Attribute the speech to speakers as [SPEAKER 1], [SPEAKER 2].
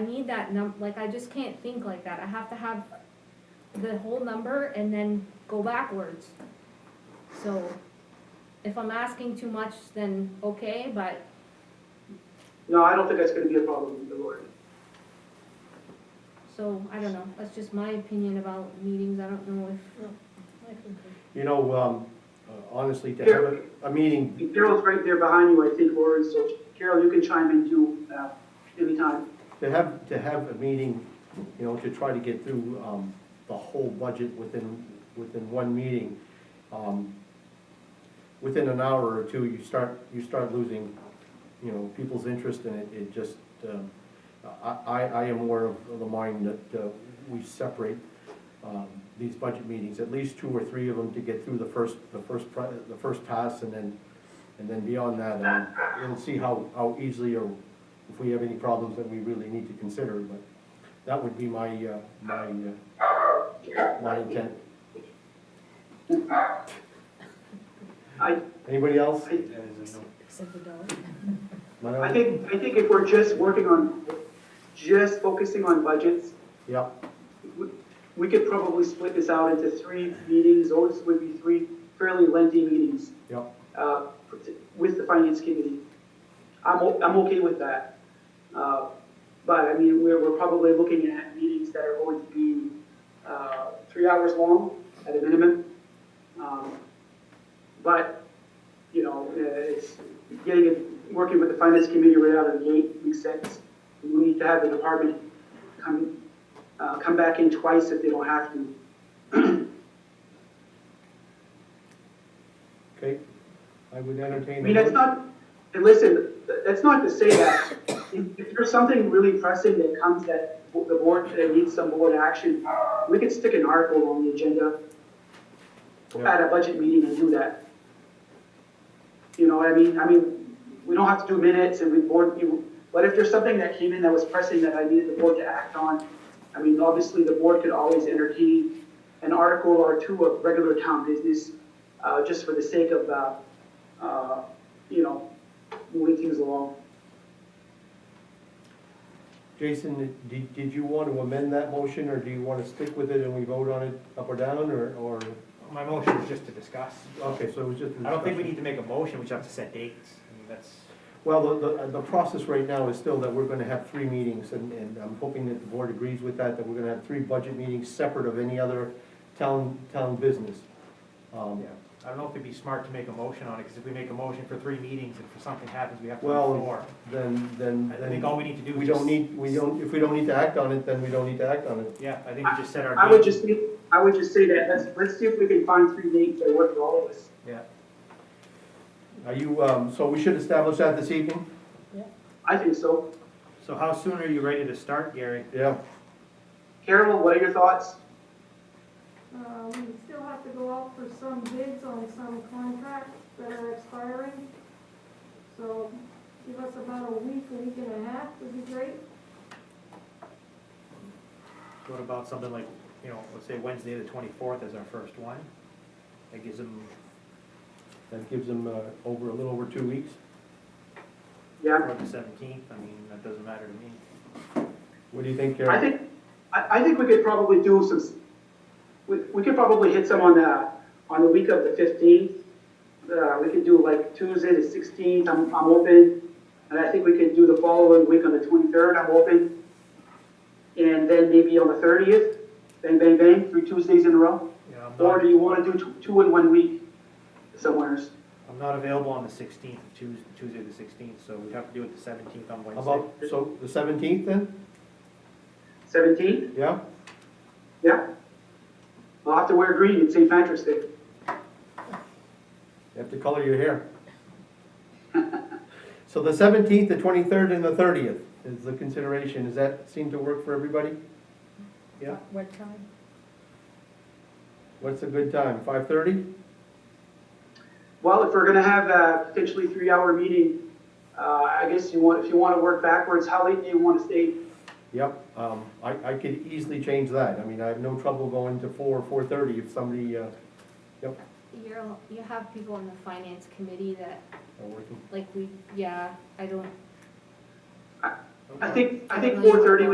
[SPEAKER 1] I need that num, like, I just can't think like that, I have to have the whole number and then go backwards. So, if I'm asking too much, then okay, but
[SPEAKER 2] No, I don't think that's gonna be a problem, the Lord.
[SPEAKER 1] So, I don't know, that's just my opinion about meetings, I don't know if,
[SPEAKER 3] You know, um, honestly, to have a, a meeting,
[SPEAKER 2] Carol's right there behind you, I think, Lauren, so Carol, you can chime in too, uh, anytime.
[SPEAKER 3] to have, to have a meeting, you know, to try to get through, um, the whole budget within, within one meeting, um, within an hour or two, you start, you start losing, you know, people's interest and it, it just, um, I, I, I am aware of the mind that, uh, we separate, um, these budget meetings, at least two or three of them to get through the first, the first, pri- the first pass and then, and then beyond that, um, it'll see how, how easily or if we have any problems that we really need to consider, but that would be my, uh, my, uh, my intent.
[SPEAKER 2] I,
[SPEAKER 3] Anybody else?
[SPEAKER 4] Except the dollar.
[SPEAKER 2] I
[SPEAKER 3] Manoj?
[SPEAKER 2] think, I think if we're just working on, just focusing on budgets,
[SPEAKER 3] Yep,
[SPEAKER 2] we, we could probably split this out into three meetings, those would be three fairly lengthy meetings,
[SPEAKER 3] yep,
[SPEAKER 2] uh, with the finance committee. I'm, o- I'm okay with that. Uh, but I mean, we're, we're probably looking at meetings that are going to be, uh, three hours long at a minimum. Um, But, you know, uh, it's getting, it- working with the finance committee right out of the gate makes sense. We need to have the department come, uh, come back in twice if they don't have to.
[SPEAKER 3] okay. I would
[SPEAKER 2] I
[SPEAKER 3] entertain.
[SPEAKER 2] mean, that's not, and listen, th- that's not to say that if if there's something really pressing that comes that bo- the board, that needs some board action, we could stick an article on the agenda
[SPEAKER 3] Yeah.
[SPEAKER 2] at a budget meeting and do that. You know what I mean? I mean, we don't have to do minutes and we board, you, but if there's something that came in that was pressing that I needed the board to act on, I mean, obviously, the board could always entertain an article or two of regular town business, uh, just for the sake of, uh, uh, you know, moving things along.
[SPEAKER 3] Jason, did, did you want to amend that motion, or do you want to stick with it and we vote on it up or down, or, or,
[SPEAKER 5] My motion is just to discuss.
[SPEAKER 3] okay, so it was just. a
[SPEAKER 5] I don't think we
[SPEAKER 3] discussion.
[SPEAKER 5] need to make a motion, we just have to set dates, I mean, that's,
[SPEAKER 3] Well, the, the, the process right now is still that we're gonna have three meetings, and, and I'm hoping that the board agrees with that, that we're gonna have three budget meetings separate of any other town, town business. Um,
[SPEAKER 5] yeah. I don't know if it'd be smart to make a motion on it, because if we make a motion for three meetings and if something happens, we have to do
[SPEAKER 3] Well,
[SPEAKER 5] four.
[SPEAKER 3] Then, then,
[SPEAKER 5] I think all
[SPEAKER 3] then,
[SPEAKER 5] we need to do is.
[SPEAKER 3] we don't
[SPEAKER 5] just-
[SPEAKER 3] need, we don't, if we don't need to act on it, then we don't need to act on it.
[SPEAKER 5] Yeah, I think we just set our.
[SPEAKER 2] I would
[SPEAKER 5] date.
[SPEAKER 2] just, think- I would just say that, let's, let's see if we can find three dates that work for all of us.
[SPEAKER 5] Yeah,
[SPEAKER 3] Are you, um, so we should establish that this evening?
[SPEAKER 2] I think so.
[SPEAKER 6] So how soon are you ready to start, Gary?
[SPEAKER 3] Yeah,
[SPEAKER 2] Carol, what are your thoughts?
[SPEAKER 7] Um, we still have to go out for some bids on some contracts that are expiring. So give us about a week, a week and a half would be great.
[SPEAKER 6] What about something like, you know, let's say Wednesday the twenty-fourth is our first one? That gives them,
[SPEAKER 3] that gives them, uh, over, a little over two weeks.
[SPEAKER 2] Yeah,
[SPEAKER 6] or the seventeenth, I mean, that doesn't matter to me.
[SPEAKER 3] What do you think,
[SPEAKER 2] I
[SPEAKER 3] Karen?
[SPEAKER 2] think, I, I think we could probably do some, s- we, we could probably hit some on the, on the week of the fifteenth. Uh, we could do like Tuesday the sixteenth, I'm, I'm open, and I think we could do the following week on the twenty-third, I'm open. And then maybe on the thirtieth, bang, bang, bang, three Tuesdays in a row.
[SPEAKER 6] You know, I'm
[SPEAKER 2] Or
[SPEAKER 6] not,
[SPEAKER 2] do you wanna do two, two in one week somewheres?
[SPEAKER 6] I'm not available on the sixteenth, Tuesday, Tuesday the sixteenth, so we'd have to do it the seventeenth on
[SPEAKER 3] How
[SPEAKER 6] Wednesday.
[SPEAKER 3] about, so, the seventeenth then?
[SPEAKER 2] Seventeenth,
[SPEAKER 3] Yeah?
[SPEAKER 2] yeah? I'll have to wear green, it's St. Patrick's Day.
[SPEAKER 3] You have to color your hair. So the seventeenth, the twenty-third, and the thirtieth is the consideration. Does that seem to work for everybody?
[SPEAKER 6] Yeah.
[SPEAKER 4] What time?
[SPEAKER 3] What's a good time? Five-thirty?
[SPEAKER 2] Well, if we're gonna have a potentially three-hour meeting, uh, I guess you want, if you wanna work backwards, how late do you wanna stay?
[SPEAKER 3] Yep, um, I, I could easily change that. I mean, I have no trouble going to four or four-thirty if somebody, uh,
[SPEAKER 1] you're, you have people on the finance committee that,
[SPEAKER 3] are working.
[SPEAKER 1] like, we, yeah, I don't,
[SPEAKER 2] I think, I think four-thirty